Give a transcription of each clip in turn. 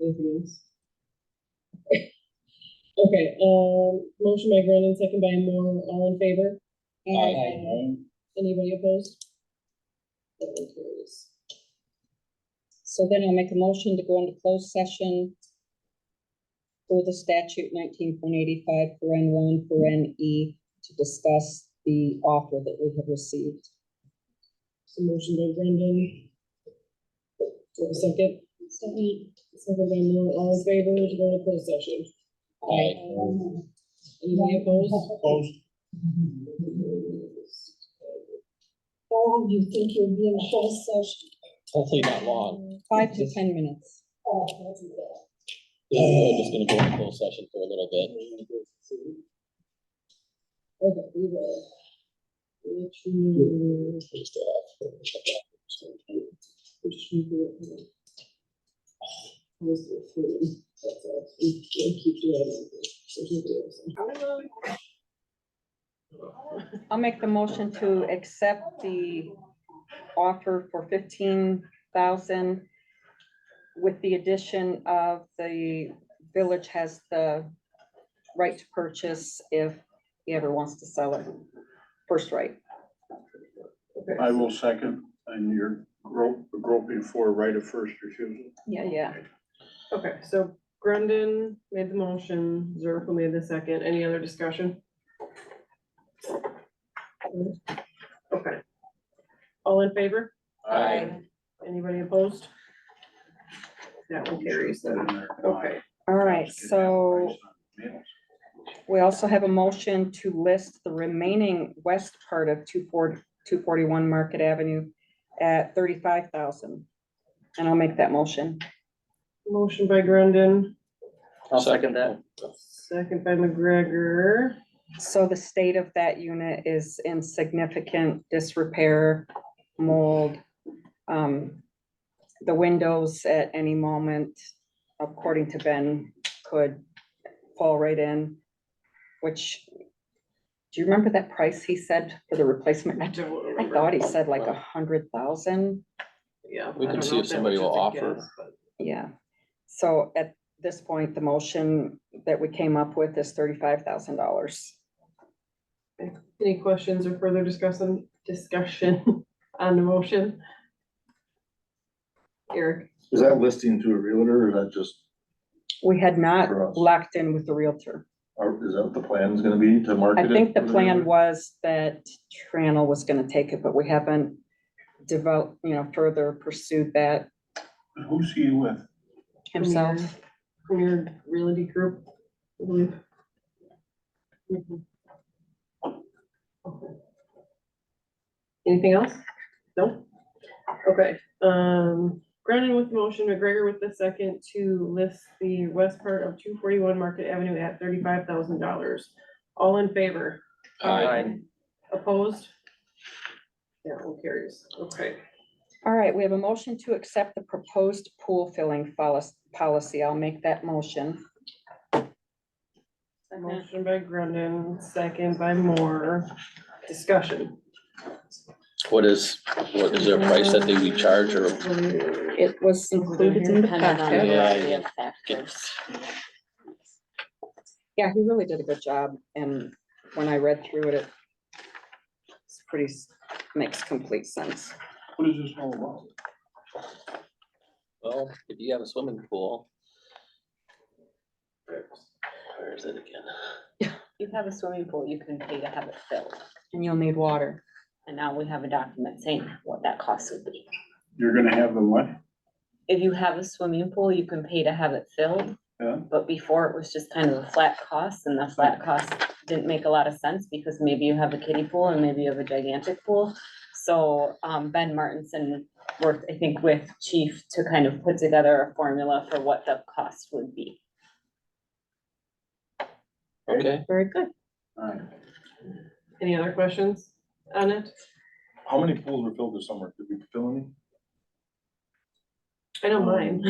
Anything else? Mm-hmm. Okay, um, motion by Brennan, second by Moore, all in favor? Anybody opposed? That one carries. So then I'll make a motion to go into closed session for the statute nineteen point eighty-five, paren one, paren E, to discuss the offer that we have received. So motion by Brendan. Do I have a second? Second. by Moore, all in favor, to go to closed session? Anybody opposed? Opposed? Oh, you think you'll be in closed session? Hopefully not long. Five to ten minutes. Oh, that's bad. This is really just gonna go into closed session for a little bit. Okay, we will. Let you. Let you do it. Close the phone. That's all. We can't keep doing it. There's nobody else. I'll make the motion to accept the offer for fifteen thousand with the addition of the village has the right to purchase if he ever wants to sell it. First right. I will second, and you're gro- groping for right of first refusal. Yeah, yeah. Okay, so Brendan made the motion, Zerpa made the second. Any other discussion? Okay. All in favor? Aye. Anybody opposed? That one carries then. Okay, All right, so we also have a motion to list the remaining west part of 240 241 Market Avenue at thirty-five thousand. And I'll make that motion. motion by Brendan, I'll second that. second by McGregor. So the state of that unit is in significant disrepair, mold. um, The windows at any moment, according to Ben, could fall right in, which, do you remember that price he said for the replacement? I don't I remember. thought he said like a hundred thousand, Yeah. We I can don't see know if that somebody was will just a offer. guess, but- yeah. So at this point, the motion that we came up with is thirty-five thousand dollars. Any questions or further discussion, discussion on the motion? Eric, Is that listing to a realtor or that just, We had For not us. locked in with the Realtor. or is that what the plan is gonna be to market I it? think the for plan was that Tranel was gonna take it, but we haven't developed, you know, further pursued that Who's he with? himself. Premier Realty Group, Mm-hmm. I believe. Okay. Anything else? No? Okay, um, Brennan with the motion, McGregor with the second to list the west part of two forty-one Market Avenue at thirty-five thousand dollars. All in favor? Aye. Opposed? Yeah, all carries. Okay. All right, we have a motion to accept the proposed pool filling follis- policy. I'll make that motion. Motion by Grundon, second by Moore. Discussion. What is, what is their price that they we charge or It was included in the packet. Yeah, he really did a good job, and when I read through it, it it's pretty, s- makes complete sense. What is this all about? Well, if you have a swimming pool. Where where is it again? You have a swimming pool, you can pay to have it filled, And you'll need water. and now we have a document saying what that cost would be. You're gonna have them what? If you have a swimming pool, you can pay to have it filled, Yeah, but before it was just kind of a flat cost, and the flat cost didn't make a lot of sense, because maybe you have a kiddie pool and maybe you have a gigantic pool. So, um, Ben Martinson worked, I think, with chief to kind of put together a formula for what the cost would be. Okay, Very good. all right. Any other questions on it? How many pools were filled this summer? Did we fill any? I Um, know mine.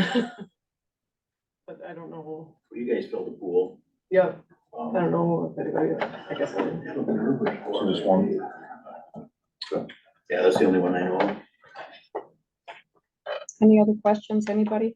But I don't know. You guys build a pool. Yep, I um, don't know if anybody, I guess. I didn't. So just one? Yeah, that's the only one I know. of. Any other questions, anybody?